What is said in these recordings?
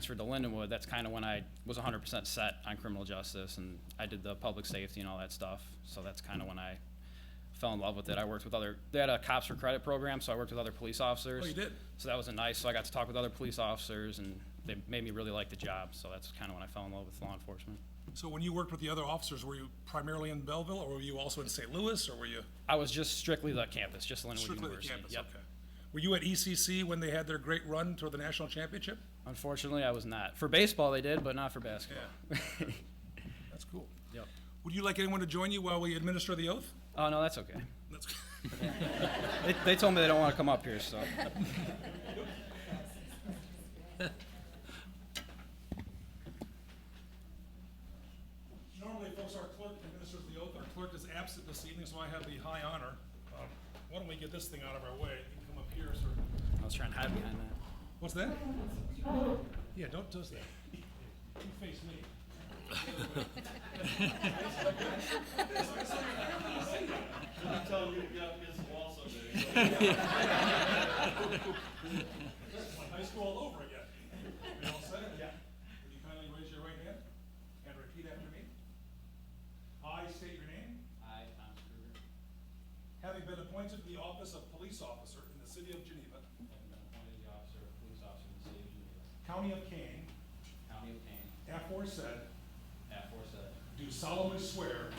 transferred to Lindenwood, that's kind of when I was 100% set on criminal justice, and I did the public safety and all that stuff. So that's kind of when I fell in love with it. I worked with other, they had a cops for credit program, so I worked with other police officers. Oh, you did? So that was a nice, so I got to talk with other police officers, and they made me really like the job. So that's kind of when I fell in love with law enforcement. So when you worked with the other officers, were you primarily in Belleville, or were you also in St. Louis, or were you I was just strictly the campus, just Lindenwood strictly the University. campus? Yep. Okay. Were you at ECC when they had their great run toward the national championship? Unfortunately, I was not. For baseball, they did, but not for basketball. That's cool. Yep. Would you like anyone to join you while we administer the oath? Oh, no, that's okay. That's They, they told me they don't want to come up here, so. Normally, folks, our clerk administers the oath. Our clerk is absent this evening, so I have the high honor. Um, Why don't we get this thing out of our way? You can come up here, sir. I was trying to hide behind that. What's that? Yeah, don't do that. You face me. I'm telling you, you got against the wall someday. This is like high school all over again. We all said it? Yeah. Would you kindly raise your right hand and repeat after me? I state your name, I, Tom Kruger, having been appointed to the office of police officer in the city of Geneva, having been appointed the officer of police officer in the city of Geneva, county of Kane, county of Kane, aforesaid, aforesaid, do solemnly swear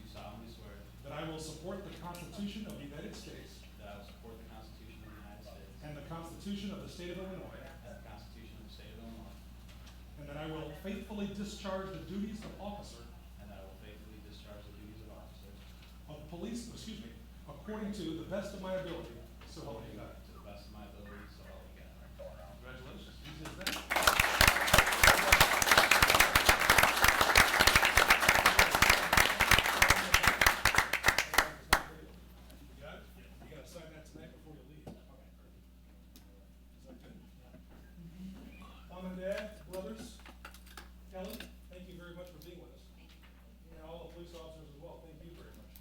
do solemnly swear that I will support the Constitution of the United States that I will support the Constitution of the United States and the Constitution of the state of Illinois, and the Constitution of the state of Illinois, and that I will faithfully discharge the duties of officer and that I will faithfully discharge the duties of officer to of police, excuse me, according to the best of my ability, so help me God. the best of my ability, so help me God. Congratulations. Easy as that. You got it? You gotta sign that tonight before you leave. Is that good? Mom and Dad, brothers, Kelly, thank you very much for being with us. And all the police officers as well, thank you very much.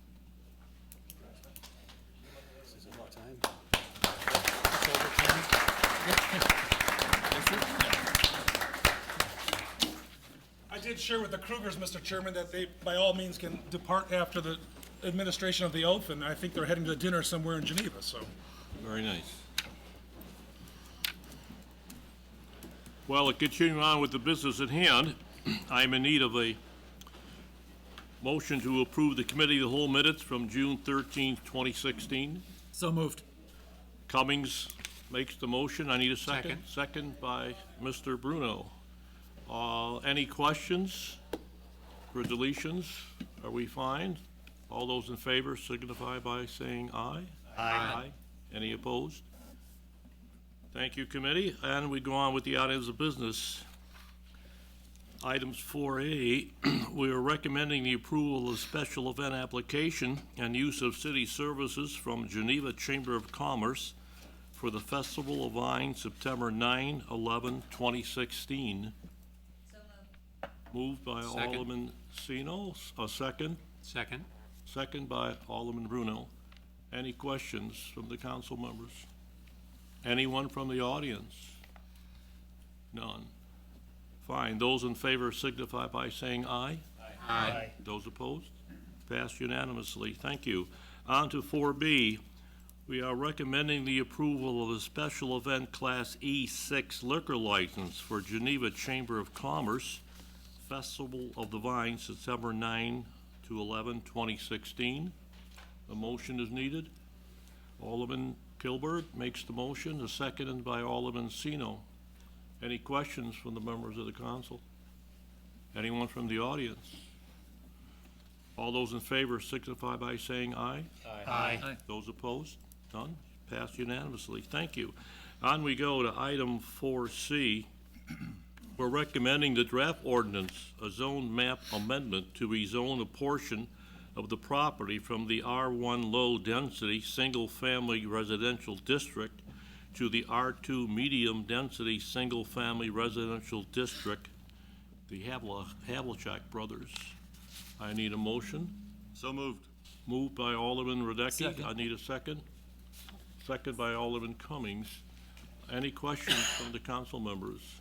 I did share with the Krugers, Mr. Chairman, that they, by all means, can depart after the administration of the oath, and I think they're heading to dinner somewhere in Geneva, so. Very nice. Well, continuing on with the business at hand, I'm in need of a motion to approve the committee of the whole minutes from June thirteenth, twenty sixteen. So moved. Cummings makes the motion. I need a second. Second by Mr. Bruno. Uh, any questions for deletions? Are we fine? All those in favor signify by saying aye. Aye. Any opposed? Thank you, committee. And we go on with the items of business. Items 4A, we are recommending the approval of special event application and use of city services from Geneva Chamber of Commerce for the Festival of Vine, September 9, 11, 2016. Moved by Second. Alderman Sino, a second. Second. Second by Alderman Bruno. Any questions from the council members? Anyone from the audience? None. Fine. Those in favor signify by saying aye. Aye. Those opposed? Passed unanimously. Thank you. On to 4B. We are recommending the approval of a special event Class E6 liquor license for Geneva Chamber of Commerce Festival of the Vine, September 9 to 11, 2016. A motion is needed. Alderman Kilburg makes the motion, is seconded by Alderman Sino. Any questions from the members of the council? Anyone from the audience? All those in favor signify by saying aye. Aye. Those opposed? None? Passed unanimously. Thank you. On we go to item 4C. We're recommending the draft ordinance, a zone map amendment to rezone a portion of the property from the R1 low-density, single-family residential district to the R2 medium-density, single-family residential district, the Havla- Havlicek Brothers. I need a motion. So moved. Moved by Alderman Radecki. Second. I need a second. Second by Alderman Cummings. Any questions from the council members?